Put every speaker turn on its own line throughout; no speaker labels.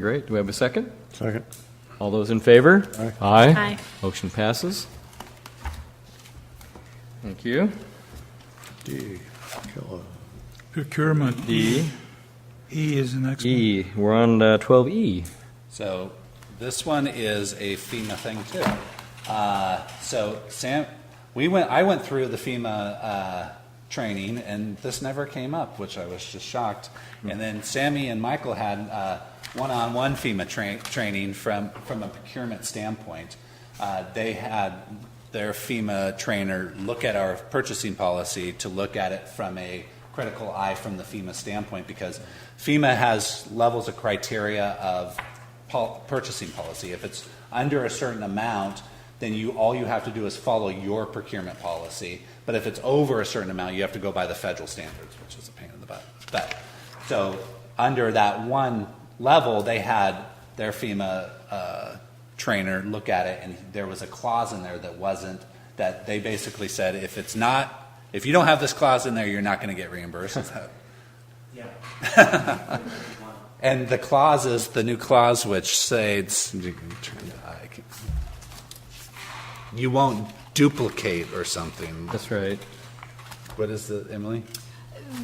Great. Do we have a second?
Second.
All those in favor? Aye.
Aye.
Motion passes. Thank you.
D, Keller.
Procurement,
D,
E is the next one.
E, we're on twelve E.
So this one is a FEMA thing too. Uh, So Sam, we went, I went through the FEMA uh, training and this never came up, which I was just shocked. And then Sammy and Michael had uh, one-on-one FEMA tra- training from, from a procurement standpoint. Uh, They had their FEMA trainer look at our purchasing policy to look at it from a critical eye from the FEMA standpoint because FEMA has levels of criteria of pol- purchasing policy. If it's under a certain amount, then you, all you have to do is follow your procurement policy. But if it's over a certain amount, you have to go by the federal standards, which is a pain in the butt. But, so, under that one level, they had their FEMA, uh, trainer look at it, and there was a clause in there that wasn't, that they basically said, if it's not, if you don't have this clause in there, you're not gonna get reimbursed. And the clause is the new clause which says you won't duplicate or something.
That's right.
What is the Emily?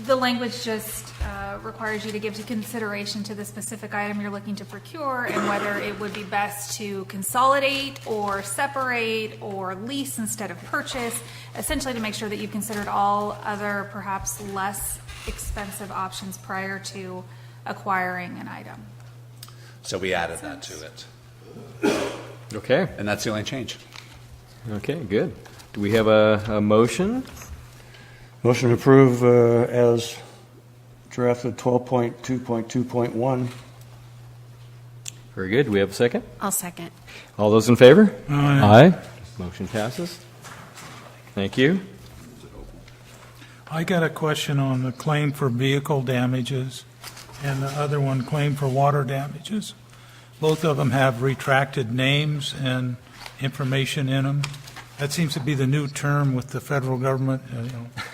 The language just uh, requires you to give to consideration to the specific item you're looking to procure and whether it would be best to consolidate or separate or lease instead of purchase, essentially to make sure that you've considered all other perhaps less expensive options prior to acquiring an item.
So we added that to it,
Okay,
and that's the only change.
okay, good. Do we have a, a motion?
Motion to approve uh, as drafted 12.2.2.1.
Very good. Do we have a second?
I'll second.
All those in favor?
Aye.
Motion passes. Thank you.
I got a question on the claim for vehicle damages and the other one, claim for water damages. Both of them have retracted names and information in them. That seems to be the new term with the federal government, uh, you know.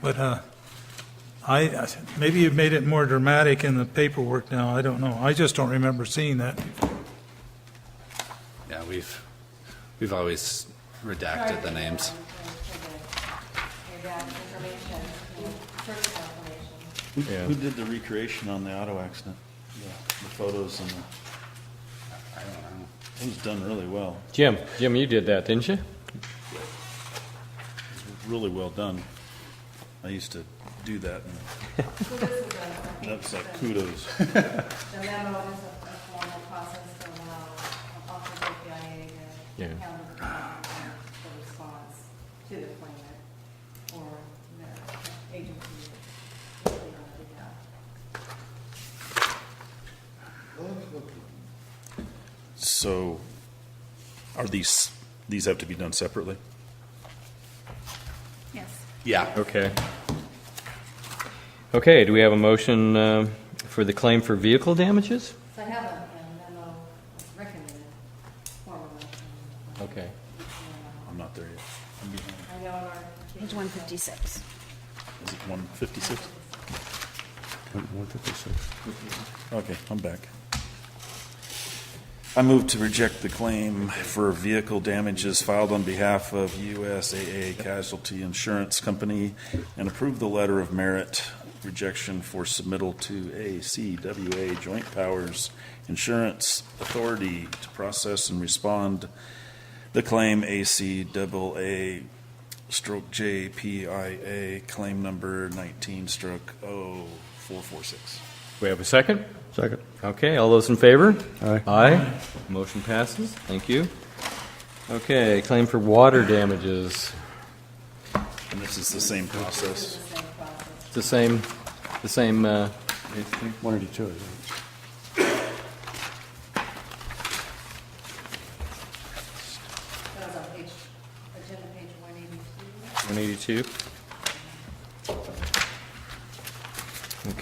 But uh, I, I- maybe you've made it more dramatic in the paperwork now, I don't know. I just don't remember seeing that.
Yeah, we've, we've always redacted the names.
Who who did the recreation on the auto accident? The the photos and the, it was done really well,
Jim, Jim, you did that, didn't you?
really well done. I used to do that, and that was like kudos.
The memo is a a formal process to allow Office of PIA
Yeah.
to counter the response to the claimant or the agency. that they don't do that.
So, are these, these have to be done separately?
Yes.
Yeah,
Okay. Okay, do we have a motion, um, for the claim for vehicle damages?
So I have a a memo recommended formally.
Okay.
I'm not there yet.
I know in our.
Page 156.
Is it one fifty-six?
156.
Okay, I'm back. I move to reject the claim for vehicle damages filed on behalf of USAA Casualty Insurance Company and approve the letter of merit rejection for submittal to ACWA Joint Powers Insurance Authority to process and respond the claim ACAA stroke JPIA claim number 19 stroke 0446.
We have a second?
Second.
Okay, all those in favor?
Aye.
Aye. Motion passes. Thank you. Okay, claim for water damages.
And this is the same process.
It's the same, the same, uh,
182, I think.
That was on page, agenda page one eighty-two.
182.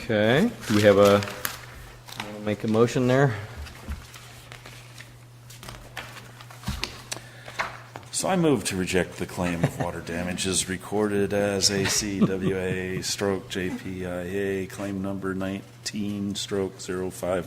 Okay, do we have a, wanna make a motion there?
So I move to reject the claim of water damages recorded as ACWA stroke oh JPIA claim number 19 stroke 051.